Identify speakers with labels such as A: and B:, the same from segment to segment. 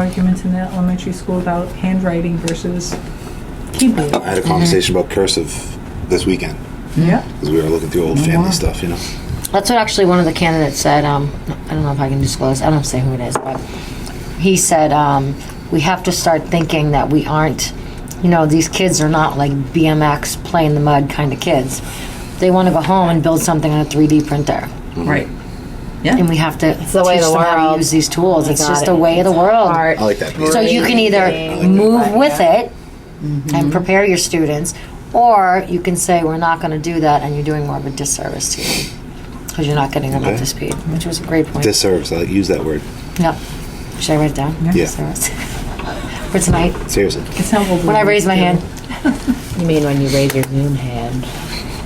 A: arguments in the elementary school about handwriting versus keyboard.
B: I
C: Mm-hmm.
B: had a conversation about cursive this weekend
A: Yeah.
B: because we were looking through
C: Oh,
B: old family stuff, you know.
D: That's what actually one of the candidates said. Um, I don't know if I can disclose. I don't say who it is, but he said um, we have to start thinking that we aren't. You know, these kids are not like BMX play in the mud kind of kids. They want to go home and build something on a 3D printer,
A: Mm-hmm.
C: Right.
D: and we have to
E: the way
D: teach
E: of the
D: them how to
E: world.
D: use these tools.
E: I
D: It's
E: got
D: just
E: it.
D: the way of the
E: It's
D: world.
E: art,
B: I like that piece.
D: So you can
E: breathing,
D: either move
E: like
D: with
E: that.
D: it
B: Mm-hmm.
D: and prepare your students, or you can say, we're not gonna do that, and you're doing more of a disservice to them. Because you're not getting them up
B: Okay.
D: to speed, which was a great point.
B: Disservice. I like use that word.
D: Yep. Should I write it down?
B: Yeah.
D: Disservice. For tonight,
B: Seriously.
A: It's how old.
D: when I raise my hand,
E: You mean when you raise your Zoom hand?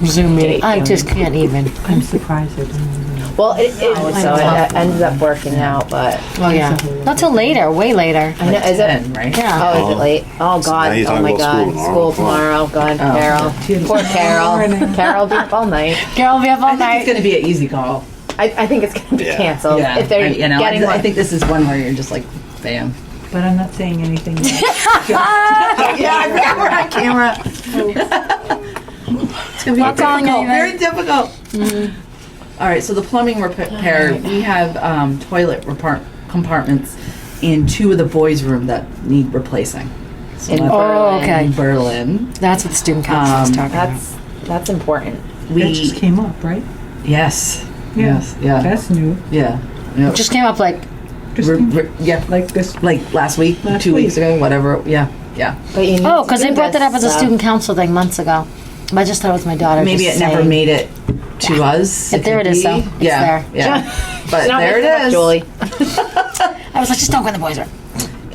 D: Zoom meeting,
E: Date
D: I just can't even.
A: I'm surprised I didn't.
E: Well, it, it, Oh, so it ended up working out, but
D: Oh, yeah. Not till later, way later.
E: I know, is it?
C: Ten, right?
D: Yeah.
E: Oh, is it
B: Oh.
E: late? Oh,
B: now
E: God.
B: you're
E: Oh,
B: talking
E: my
B: about
E: God.
B: school tomorrow.
E: School tomorrow. God, Carol.
A: She-
E: Poor Carol. Carol be up all night.
D: Girl, we have all
C: I think it's
D: night.
C: going to be an easy call.
E: I, I think it's going to be
B: Yeah.
E: canceled
C: yeah.
E: if they're
C: I, you know,
E: getting
C: I, I
E: one.
C: think this is one where you're just like, bam.
A: But I'm not saying anything.
C: Yeah, we're on camera.
A: It's gonna be
D: Not telling anyone.
C: difficult, very difficult.
E: Mm-hmm.
C: All right, so the plumbing repair, we have um, toilet repart- compartments in two of the boys' room that need replacing. So
E: In
C: that's
D: Oh,
E: Berlin.
D: okay.
C: in Berlin,
D: That's what the student council
C: Um,
D: is talking about.
E: That's, that's important.
A: That just
C: we
A: came up, right?
C: yes,
A: Yeah.
C: yes, yeah,
A: That's new.
C: yeah, yeah.
D: Just came up like,
A: Just
C: Re-
A: came-
C: re- yeah,
A: like this.
C: like last week,
A: Last
C: two weeks
A: week.
C: ago, whatever. Yeah, yeah.
E: But you need
D: oh,
E: to
D: because
E: do
D: they brought that
E: this
D: up as a
E: stuff.
D: student council thing months ago. I just thought it was my daughter.
C: Maybe
D: just
C: it never
D: saying.
C: made it to us.
D: But there
C: could
D: it is,
C: be.
D: though. It's
C: Yeah,
D: there.
C: yeah. But
E: Don't
C: there
E: mess up,
C: it is.
E: Julie.
D: I was like, just don't go in the boys' room.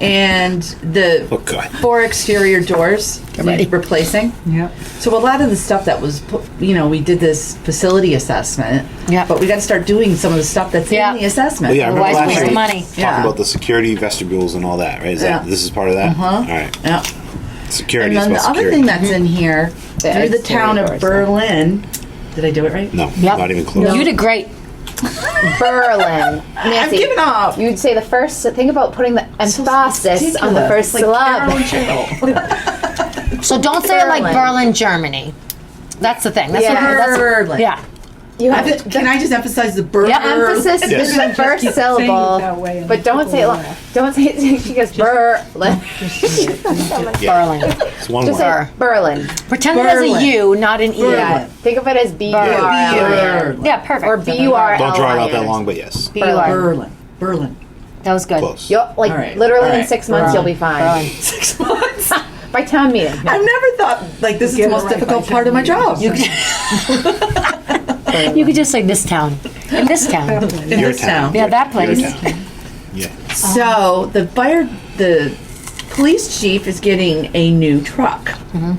C: And the
B: Oh God.
C: four exterior doors
D: ready.
C: need replacing.
A: Yep.
C: So a lot of the stuff that was, pu- you know, we did this facility assessment.
D: Yeah.
C: But we got to start doing some of the stuff that's
D: Yeah.
C: in the assessment.
B: Well, yeah, I remember
D: Otherwise,
B: last
D: waste
B: week
D: of money.
B: talking
C: Yeah.
B: about the security vestibules and all that, right? Is that
C: Yeah.
B: this is part of that?
C: Uh-huh.
B: All right.
C: Yeah.
B: Security is
C: And then the
B: about
C: other
B: security.
C: thing that's in here
D: Mm-hmm.
E: The
C: through the town of
E: exterior
C: Berlin. Did I do it right?
B: no,
D: Yep.
B: not even close.
D: You did great.
E: Berlin.
C: I'm
E: Nancy,
C: giving up.
E: you'd say the first, think about putting the emphasis on the first
C: It's like
E: syllable.
C: Carol and Cheryl.
D: So don't say it like
E: Berlin.
D: Berlin, Germany. That's the thing. That's
E: Yeah.
D: what, that's
C: Berlin.
D: yeah.
E: You
C: I
E: have
C: just-
E: to,
C: Can I just emphasize the Berlin?
D: Yeah,
E: emphasis
B: Yes.
E: is the first syllable,
A: that way and
E: but don't say it. lo- Don't say it. She goes Berlin.
B: Yeah.
D: Berlin.
B: It's one
E: Just
B: word.
E: say Berlin.
D: Pretend it has
C: Berlin.
D: a U, not an E.
E: Yeah. Think of it as B U R L.
C: Berlin.
D: Yeah, perfect.
E: Or B U R L.
B: Don't draw it out that long, but yes,
D: B U R.
C: Berlin. Berlin.
D: That was good.
B: close.
E: You'll, like
C: All right.
E: literally
C: All
E: in
C: right.
E: six months, you'll be fine.
D: Berlin.
C: Six months.
E: By town meeting.
C: I've never thought like this is the
A: Get it
C: most
A: right
C: difficult
A: by
C: part of my job.
D: You could just say this town. In this town.
C: in
B: Your
C: this
B: town.
C: town.
D: Yeah, that place.
B: Your town. Yeah.
E: Um,
C: So the fire, the police chief is getting a new truck
E: Mm-hmm.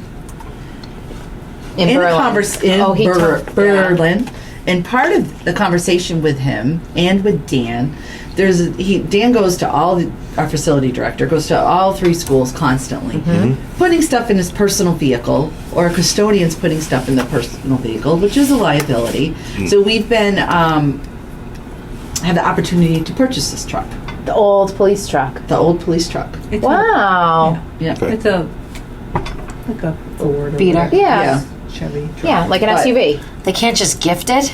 E: In,
C: in,
E: Berlin.
C: convers- in
E: Oh, he
C: Ber-
E: told- yeah.
C: Berlin. And part of the conversation with him and with Dan, there's a, he Dan goes to all the, our facility director goes to all three schools constantly,
E: Mm-hmm.
C: putting stuff in his personal vehicle or a custodian's putting stuff in the personal vehicle, which is a liability.
E: Mm.
C: So we've been um, had the opportunity to purchase this truck,
E: The old police truck.
C: the old police truck.
A: It's a-
E: Wow.
C: Yeah.
B: Okay.
A: It's a like a Ford or
D: Beater.
A: whatever,
E: Yeah.
A: Chevy.
E: Yeah. like an
C: But-
E: SUV.
D: They can't just gift it.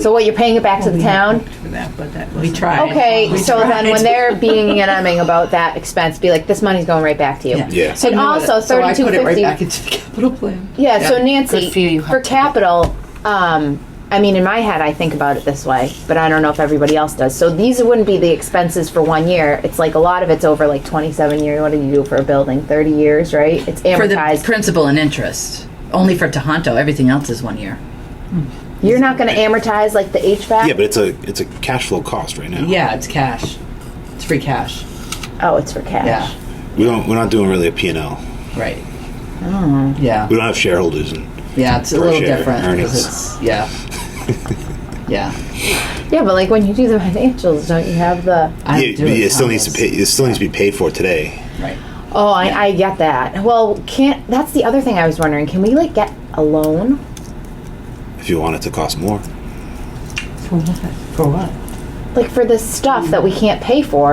E: So what? You're paying it back to
A: We
E: the
A: had
E: town?
A: hoped For that, but that
C: We
A: was
C: tried.
E: Okay,
C: We
E: so then
C: tried.
E: when they're being and umming about that expense, be like, this money's going right back to you.
C: Yeah.
B: Yeah.
E: So and also
C: so I put it right
E: 3250
C: back into the capital plan.
E: Yeah, so
C: Yeah.
E: Nancy,
D: Good for you, you
E: for
D: have to-
E: capital, um, I mean, in my head, I think about it this way, but I don't know if everybody else does. So these wouldn't be the expenses for one year. It's like a lot of it's over like 27 years. What do you do for a building? 30 years, right? It's
C: for the
E: amortized.
C: principal and interest. Only for Tohonto, everything else is one year.
E: You're not going to amortize like the HVAC?
B: Yeah, but it's a it's a cash flow cost right now.
C: Yeah, it's cash. It's free cash.
E: oh, it's for cash.
C: Yeah,
B: We don't we're not doing really a P and L.
C: right. Yeah,
B: We don't have shareholders and
C: yeah, it's a
B: Per
C: little
B: share
C: different. 'cause
B: earnings.
C: It's, yeah, yeah.
E: Yeah, but like when you do the financials, don't you have the.
C: I
B: yeah,
C: do
B: but
C: it
B: it still needs to pay
C: Tohonto's.
B: it still needs to be paid for today.
C: Right.
E: Oh, I, I get that. Well, can't. That's the other thing I was wondering. Can we like get a loan?
B: If you want it to cost more.
C: For what?
E: like for this stuff that we can't pay for